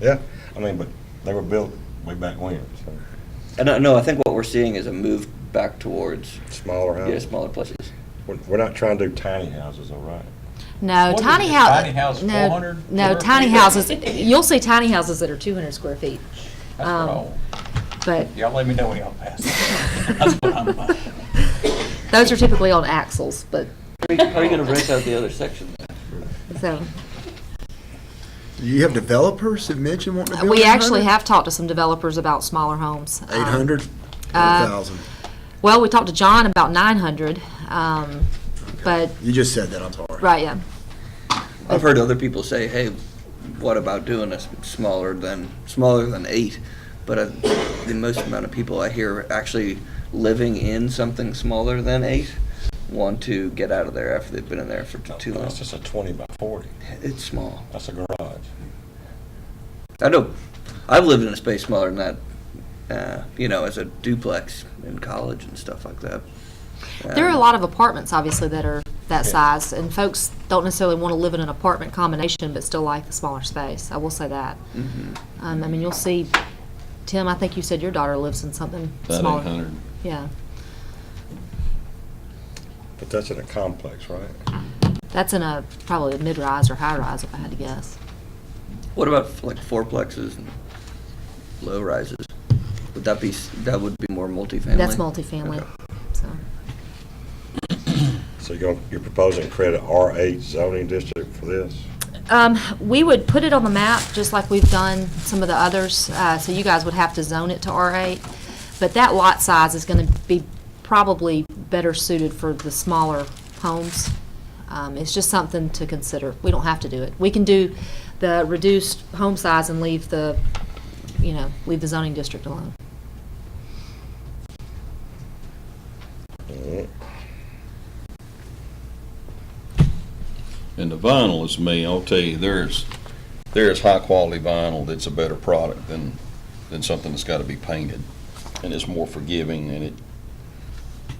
Yeah, I mean, but they were built way back when, so I don't know. I think what we're seeing is a move back towards smaller yeah, houses. smaller places. We're, we're not trying to do tiny houses, all right? No, What is tiny it, house. tiny house, no, 400 No, square tiny feet? houses, you'll see tiny houses that are two hundred square feet, That's what Um, I want. but Y'all let me know when y'all pass. That's what I'm buying. those are typically on axles, but, How are you going to rent out the other section? so. You have developers that mentioned wanting to build We actually have talked to some developers about smaller homes. um, Eight uh, hundred, one thousand. Well, we talked to John about nine hundred, um, but, You just said that, I'm sorry. right, yeah. I've heard other people say, "Hey, what about doing a s- smaller than smaller than eight? But I, the most amount of people I hear actually living in something smaller than eight want to get out of there after they've been in there for t- too long. That's just a twenty by forty. It's small. That's a garage. I know. I've lived in a space smaller than that. Uh, you know, as a duplex in college and stuff like that. There are a Um, lot of apartments, obviously, that are that Yeah. size, and folks don't necessarily want to live in an apartment combination, but still like the smaller space. I will say that. mhm. Um, I mean, you'll see, Tim, I think you said your daughter lives in something About smaller. eight hundred. Yeah, But that's in a complex, right? that's in a, probably a mid-rise or high-rise, if I had to guess. What about f- like fourplexes and low rises? Would that be s- that would be more multifamily? That's multifamily, Okay. so. So you're, you're proposing create a R eight zoning district for this? Um, we would put it on the map, just like we've done some of the others, uh, so you guys would have to zone it to R8. But that lot size is gonna be probably better suited for the smaller homes. Um, it's just something to consider. We don't have to do it. We can do the reduced home size and leave the, you know, leave the zoning district alone. Mhm. And the vinyl is me, I'll tell you, there's, there's high-quality vinyl that's a better product than, than something that's gotta be painted. And it's more forgiving and it,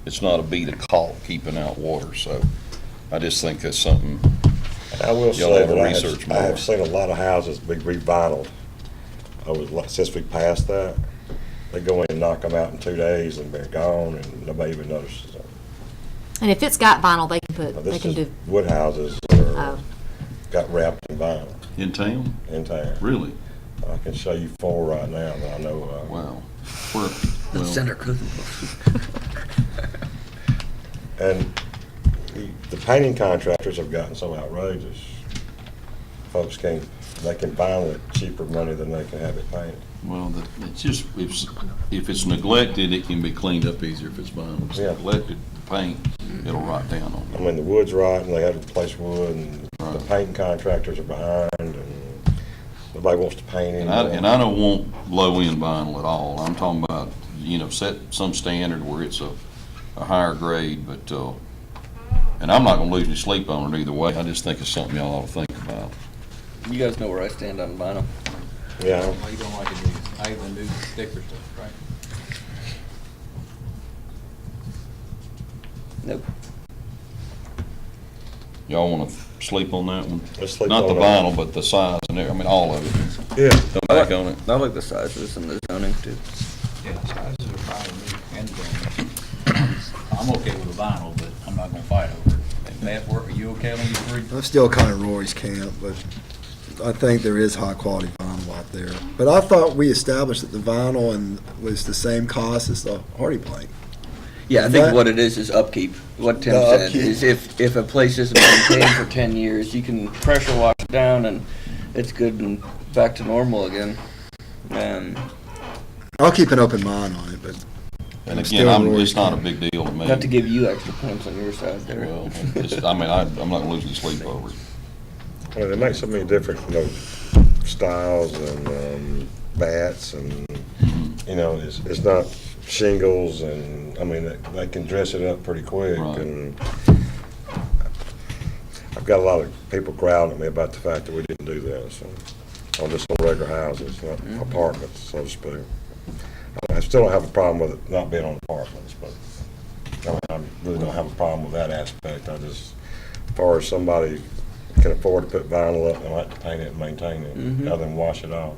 it's not a bead of caulk keeping out water, so I just think that's something, I will Y'all say have to that I research have, I more. have seen a lot of houses be revinyled over, the la- since we passed that. They go in and knock them out in two days and they're gone and nobody even notices them. And if it's got vinyl, they can Now, put, they Oh, This can is do, wood houses that oh, are, got wrapped in vinyl in town, in town. really? I can show you four right now that I know of. Wow. Where- Let's well, send our cooking book. And the- the painting contractors have gotten so outrageous. Folks can, they can vinyl it cheaper money than they can have it painted. Well, the- it's just, if, s- if it's neglected, it can be cleaned up easier if it's vinyl. If it's Yeah. neglected, the paint, it'll rot down on I it. mean, the wood's rotten, they had to replace wood, and the Right. painting contractors are behind, and nobody wants to paint And I, anymore. and I don't want low-end vinyl at all. I'm talking about, you know, set some standard where it's a, a higher grade, but, uh, and I'm not gonna lose any sleep on it either way. I just think it's something y'all ought to think about. you guys know where I stand on vinyl. Yeah, Well, you don't like the new, I hate the new sticker stuff, right? Nope. Y'all wanna sleep on that one? let's sleep Not the on it. vinyl, but the size and everything, I mean, all of it. Yeah, Come back on it. I like the sizes and the zoning too. Yeah, the sizes are fine with me and the vinyl. I'm okay with the vinyl, but I'm not gonna fight over it. Matt, were- are you okay on you three? I'm still kind of Rory's camp, but I think there is high-quality vinyl out there. But I thought we established that the vinyl and was the same cost as the hardy plank. Yeah, I think But- what it is is upkeep. What Tim The said upkeep. is if, if a place isn't maintained for ten years, you can pressure wash it down and it's good and back to normal again. Um, I'll keep an open mind on it, but And I'm again, still I'm, Rory's it's not a camp. big deal to me. not to give you extra points on your side there. Well, it's, I mean, I, I'm not gonna lose any sleep over it. I mean, they make so many different, you know, styles and, um, bats and, you know, it's, it's not shingles and, I mean, they- they can dress it up pretty quick Right. and I've got a lot of people growling at me about the fact that we didn't do that, so, on just on regular houses, not apartments, so to speak. I still don't have a problem with it not being on apartments, but I mean, I really don't have a problem with that aspect. I just, as far as somebody can afford to put vinyl up and like to paint it and maintain it, Mhm. other than wash it off.